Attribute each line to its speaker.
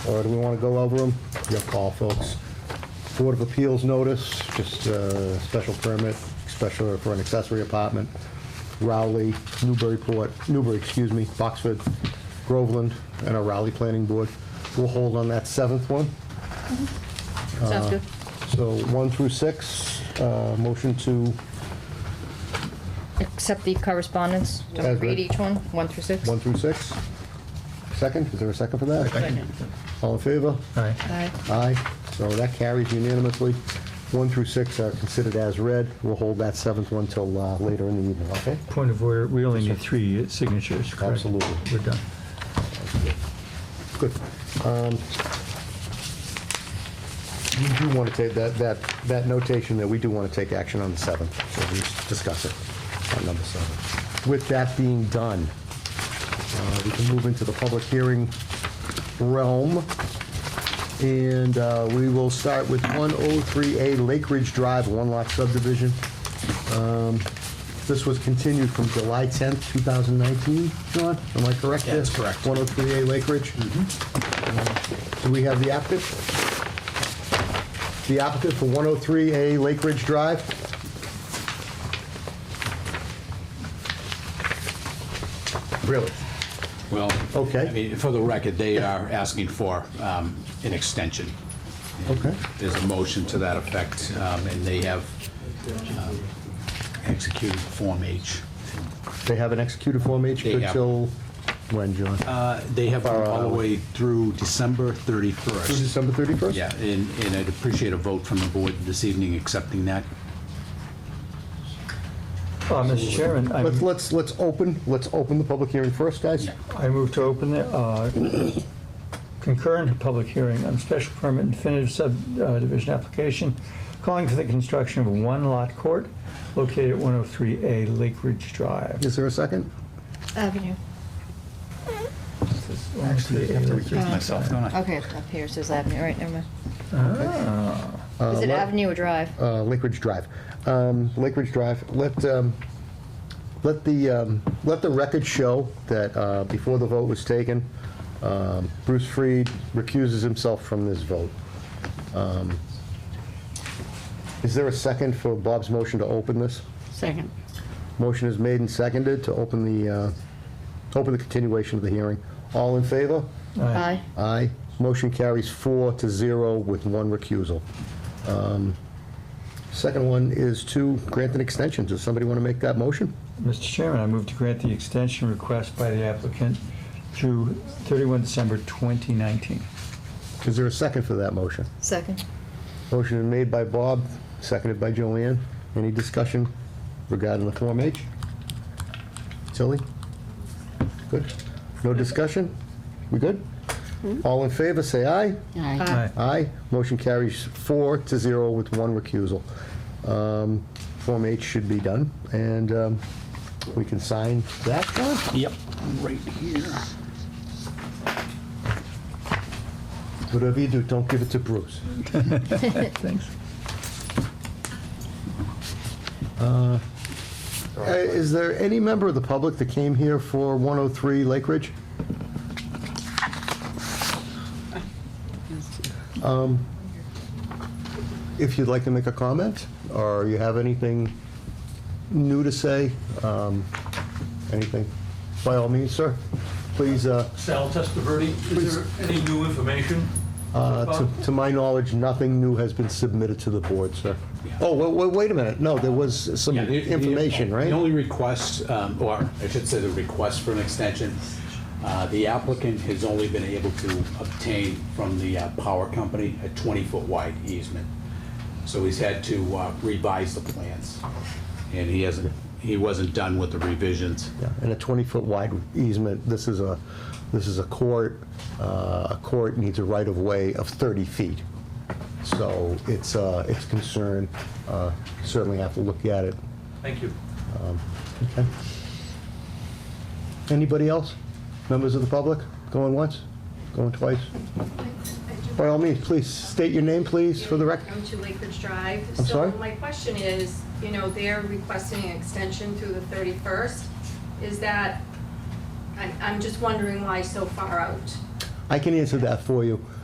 Speaker 1: Or do we want to go over them? Your call, folks. Board of Appeals notice, just a special permit, special for an accessory apartment. Rowley, Newburyport, Newbury, excuse me, Boxford, Groveland, and a Rowley Planning Board. We'll hold on that seventh one.
Speaker 2: Sounds good.
Speaker 1: So one through six, uh, motion to,
Speaker 2: Accept the correspondence.
Speaker 1: As
Speaker 2: Don't
Speaker 1: read.
Speaker 2: read each one, one through six.
Speaker 1: one through six. Second, is there a second for that?
Speaker 2: Second.
Speaker 1: All in favor?
Speaker 3: Aye.
Speaker 2: Aye.
Speaker 1: Aye, so that carries unanimously. One through six are considered as read. We'll hold that seventh one till uh, later in the evening, okay?
Speaker 3: Point of order, we only need three signatures, correct?
Speaker 1: Absolutely.
Speaker 3: We're done.
Speaker 1: Good. Um, You do want to take, that, that, that notation that we do want to take action on the seventh, so we just discuss it on number seven. With that being done, uh, we can move into the public hearing realm. And uh, we will start with 103A Lake Ridge Drive, one lot subdivision. Um, This was continued from July 10th, 2019, John, am I correct?
Speaker 4: That's correct.
Speaker 1: 103A Lake Ridge? Uh, Do we have the applicant? The applicant for 103A Lake Ridge Drive? Really?
Speaker 4: Well,
Speaker 1: Okay.
Speaker 4: I mean, for the record, they are asking for um, an extension.
Speaker 1: Okay.
Speaker 4: There's a motion to that effect, um, and they have um, executed Form H.
Speaker 1: They have an executed Form H
Speaker 4: They have.
Speaker 1: until when, John?
Speaker 4: Uh, They have gone all the
Speaker 1: Far out.
Speaker 4: way through December
Speaker 1: Through
Speaker 3: Mm-hmm.
Speaker 4: 31st.
Speaker 1: December 31st?
Speaker 4: Yeah, and and I'd appreciate a vote from the board this evening accepting that.
Speaker 3: Uh, Mr. Chairman, I
Speaker 1: Let's, let's, let's open, let's open the public hearing first, guys.
Speaker 3: I move to open the uh, concurrent public hearing on special permit and definitive subdivision application calling for the construction of a one-lot court located at 103A Lake Ridge Drive.
Speaker 1: Is there a second?
Speaker 2: Avenue.
Speaker 3: Actually, I have to recuse myself.
Speaker 2: Okay, up here it says Avenue, all right, never mind. Is it Avenue or Drive?
Speaker 1: Uh, Lake Ridge Drive. Um, Lake Ridge Drive, let, um, let the, um, let the record show that uh, before the vote was taken, um, Bruce Freed recuses himself from this vote. Um, Is there a second for Bob's motion to open this?
Speaker 5: Second.
Speaker 1: Motion is made and seconded to open the, uh, open the continuation of the hearing. All in favor?
Speaker 2: Aye.
Speaker 1: Aye. Motion carries four to zero with one recusal. Um, Second one is to grant an extension. Does somebody want to make that motion?
Speaker 3: Mr. Chairman, I move to grant the extension request by the applicant through 31 December 2019.
Speaker 1: Is there a second for that motion?
Speaker 2: Second.
Speaker 1: Motion is made by Bob, seconded by Joanne. Any discussion regarding the Form H? Tilly? Good? No discussion? We good? All in favor, say aye.
Speaker 5: Aye.
Speaker 2: Aye.
Speaker 1: Aye. Motion carries four to zero with one recusal. Um, Form H should be done, and um, we can sign that one.
Speaker 4: Yep. Right here.
Speaker 1: Whatever you do, don't give it to Bruce.
Speaker 3: Thanks.
Speaker 1: Uh, Is there any member of the public that came here for 103 Lake Ridge? Um, If you'd like to make a comment, or you have anything new to say, um, anything, by all means, sir, please, uh,
Speaker 6: Sal Testaverde, is there any new information? so
Speaker 1: Uh,
Speaker 6: far?
Speaker 1: To to my knowledge, nothing new has been submitted to the board, sir. Oh, wa- wa- wait a minute, no, there was some
Speaker 4: Yeah, the- the-
Speaker 1: information,
Speaker 4: The
Speaker 1: right?
Speaker 4: only request, um, or I should say the request for an extension, uh, the applicant has only been able to obtain from the uh, power company a 20-foot wide easement. So he's had to uh, revise the plans, and he hasn't, he wasn't done with the revisions.
Speaker 1: Yeah, And a 20-foot wide easement, this is a, this is a court, uh, a court needs a right-of-way of 30 feet. So it's, uh, it's concern, uh, certainly have to look at it.
Speaker 6: Thank you.
Speaker 1: Okay. Anybody else? Members of the public? Going once? Going twice? By all means, please, state your name, please, for the record.
Speaker 7: Come to Lake Ridge Drive.
Speaker 1: I'm sorry?
Speaker 7: So my question is, you know, they're requesting an extension through the 31st. Is that, I- I'm just wondering why so far out?
Speaker 1: I can answer that for you.